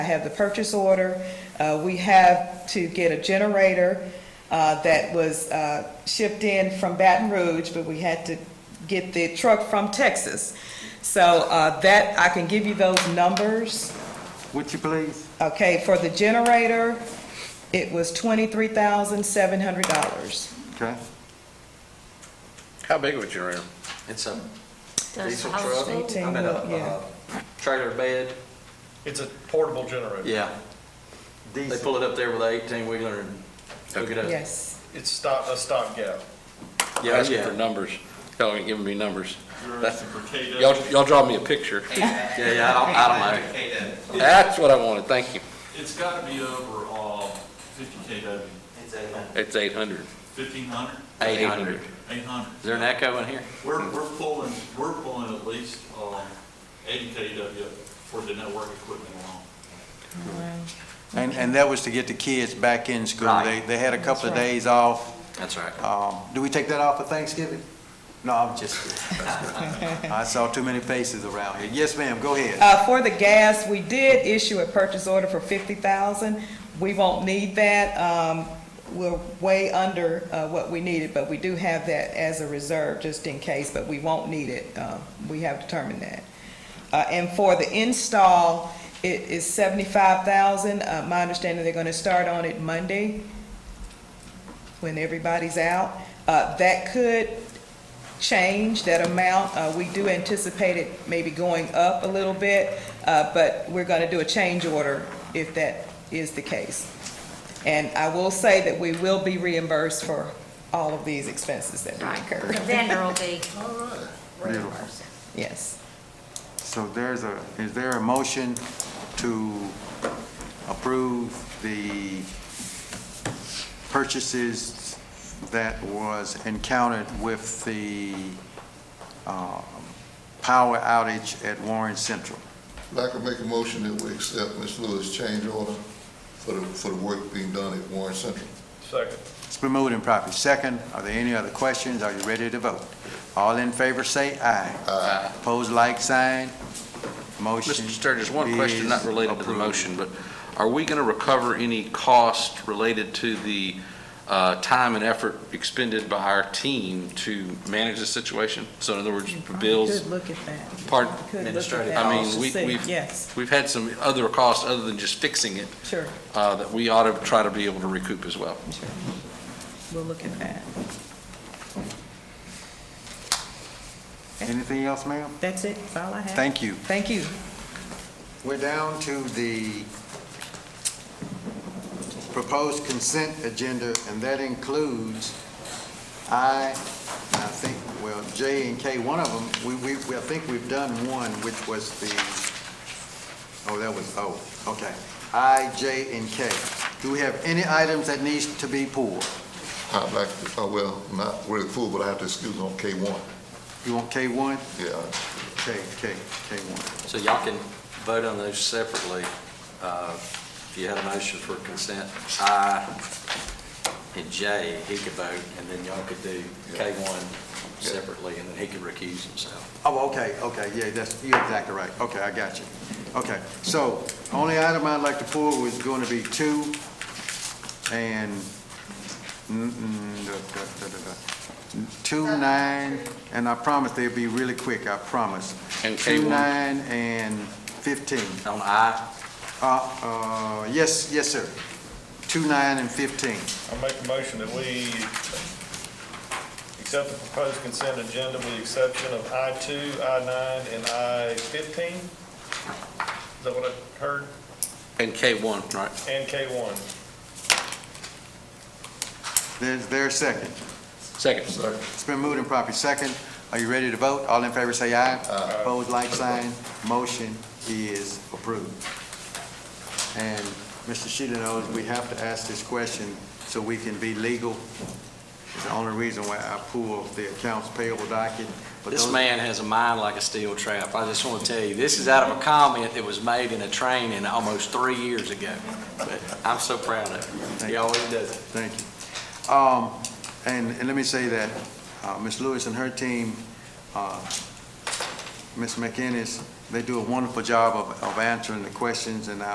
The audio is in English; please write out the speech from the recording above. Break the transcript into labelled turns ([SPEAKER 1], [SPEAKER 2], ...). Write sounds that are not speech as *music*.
[SPEAKER 1] have the purchase order. Uh, We have to get a generator uh, that was uh, shipped in from Baton Rouge, but we had to get the truck from Texas. So uh, that, I can give you those numbers.
[SPEAKER 2] Would you please?
[SPEAKER 1] Okay, for the generator, it was $23,700.
[SPEAKER 2] Okay.
[SPEAKER 3] How big of a generator?
[SPEAKER 4] It's a
[SPEAKER 5] Does
[SPEAKER 4] diesel
[SPEAKER 5] household-
[SPEAKER 4] truck.
[SPEAKER 1] Eighteen
[SPEAKER 4] I mean, a,
[SPEAKER 1] wheel, yeah.
[SPEAKER 4] a trailer bed.
[SPEAKER 6] It's a portable generator.
[SPEAKER 4] Yeah. They
[SPEAKER 2] Diesel.
[SPEAKER 4] pull it up there with an eighteen wheeler and hook it up.
[SPEAKER 1] Yes.
[SPEAKER 6] It's stock, a stopgap.
[SPEAKER 4] Yeah,
[SPEAKER 3] Asking for
[SPEAKER 4] yeah.
[SPEAKER 3] numbers. Y'all ain't giving me numbers.
[SPEAKER 7] You're asking for KW.
[SPEAKER 3] Y'all, y'all draw me a picture.
[SPEAKER 4] Yeah, yeah, I don't, I don't know.
[SPEAKER 3] That's what I wanted, thank you.
[SPEAKER 7] It's got to be over, uh, fifty KW,
[SPEAKER 3] It's eight hundred.
[SPEAKER 7] fifteen hundred,
[SPEAKER 4] Eight hundred.
[SPEAKER 7] eight hundred.
[SPEAKER 4] Is there an echo in here?
[SPEAKER 7] We're, we're pulling, we're pulling at least, um, eighty KW for the network equipment alone.
[SPEAKER 8] And, and that was to get the kids back in school. They,
[SPEAKER 4] Right.
[SPEAKER 8] they had a couple of days off.
[SPEAKER 4] That's right.
[SPEAKER 8] Um, do we take that off for Thanksgiving? No, I'm just kidding. I saw too many faces around here. Yes, ma'am, go ahead.
[SPEAKER 1] Uh, for the gas, we did issue a purchase order for fifty thousand. We won't need that. Um, we're way under, uh, what we needed, but we do have that as a reserve just in case, but we won't need it. Um, we have determined that. Uh, and for the install, it is seventy-five thousand. Uh, my understanding, they're gonna start on it Monday when everybody's out. Uh, that could change that amount. Uh, We do anticipate it maybe going up a little bit, uh, but we're going to do a change order if that is the case. And I will say that we will be reimbursed for all of these expenses that we
[SPEAKER 5] Right, the
[SPEAKER 1] incur.
[SPEAKER 5] vendor will be reimbursed.
[SPEAKER 1] *laughs* Yes.
[SPEAKER 8] So there's a, is there a motion to approve the purchases that was encountered with the, um, power outage at Warren Central?
[SPEAKER 9] I can make a motion that we accept Ms. Lewis' change order for the, for the work being done at Warren Central.
[SPEAKER 6] Second.
[SPEAKER 8] It's been moved and properly second. Are there any other questions? Are you ready to vote? All in favor, say aye. Aye. Pose like sign. Motion
[SPEAKER 10] Mr. Sturgis, one question not
[SPEAKER 8] is
[SPEAKER 10] related to the
[SPEAKER 8] approved.
[SPEAKER 10] motion, but are we going to recover any cost related to the uh, time and effort expended by our team to manage the situation? So in other words, bills,
[SPEAKER 1] Could look at that.
[SPEAKER 10] pardon,
[SPEAKER 1] Could look at
[SPEAKER 4] Administrative
[SPEAKER 1] that.
[SPEAKER 10] I mean, we-
[SPEAKER 1] See,
[SPEAKER 10] we've-
[SPEAKER 1] Yes,
[SPEAKER 10] we've had some other costs other than just fixing it
[SPEAKER 1] sure,
[SPEAKER 10] uh, that we ought to try to be able to recoup as well.
[SPEAKER 1] sure. We'll look at that.
[SPEAKER 8] Anything else, ma'am?
[SPEAKER 1] That's it, that's all I have.
[SPEAKER 8] Thank you.
[SPEAKER 1] Thank you.
[SPEAKER 8] We're down to the proposed consent agenda, and that includes I, and I think, well, J and K, one of them, we, we, we- I think we've done one, which was the, oh, that was, oh, okay. I, J, and K. Do we have any items that needs to be pulled?
[SPEAKER 9] I'd like, to- oh, well, not really full, but I have to excuse on K one,
[SPEAKER 8] You want K one?
[SPEAKER 9] yeah.
[SPEAKER 8] K, K, K one.
[SPEAKER 4] So y'all can vote on those separately. Uh, If you had a motion for consent, I and J, he could vote, and then y'all could do K1 separately, and then he could recuse himself.
[SPEAKER 8] Oh, okay, okay, yeah, that's, you're exactly right. Okay, I got you. Okay, so only item I'd like to pull was going to be two and, mm, mm, da, da, da, da, da. two, nine, and I promise they'll be really quick, I promise.
[SPEAKER 3] And
[SPEAKER 8] Two,
[SPEAKER 3] K1.
[SPEAKER 8] nine, and 15.
[SPEAKER 4] On I,
[SPEAKER 8] Uh, uh, yes, yes, sir. Two, nine, and 15.
[SPEAKER 6] I make a motion that we accept the proposed consent agenda with the exception of I-2, I-9, and I-15. Is that what I heard?
[SPEAKER 10] And K1, right?
[SPEAKER 6] And K1.
[SPEAKER 8] There's, there's second.
[SPEAKER 3] Second.
[SPEAKER 8] It's been moved and properly second. Are you ready to vote? All in favor say aye. Opposed, like sign. Motion is approved. And Mr. Sheila knows we have to ask this question so we can be legal. It's the only reason why I pulled the accounts payable docket. but
[SPEAKER 4] This
[SPEAKER 8] those-
[SPEAKER 4] man has a mind like a steel trap. I just want to tell you, this is out of a comment that was made in a training almost three years ago. But I'm so proud of him. He always does it.
[SPEAKER 8] Thank you. Um, And, and let me say that uh, Ms. Lewis and her team, uh, Ms. McInnes, they do a wonderful job of, of answering the questions, and I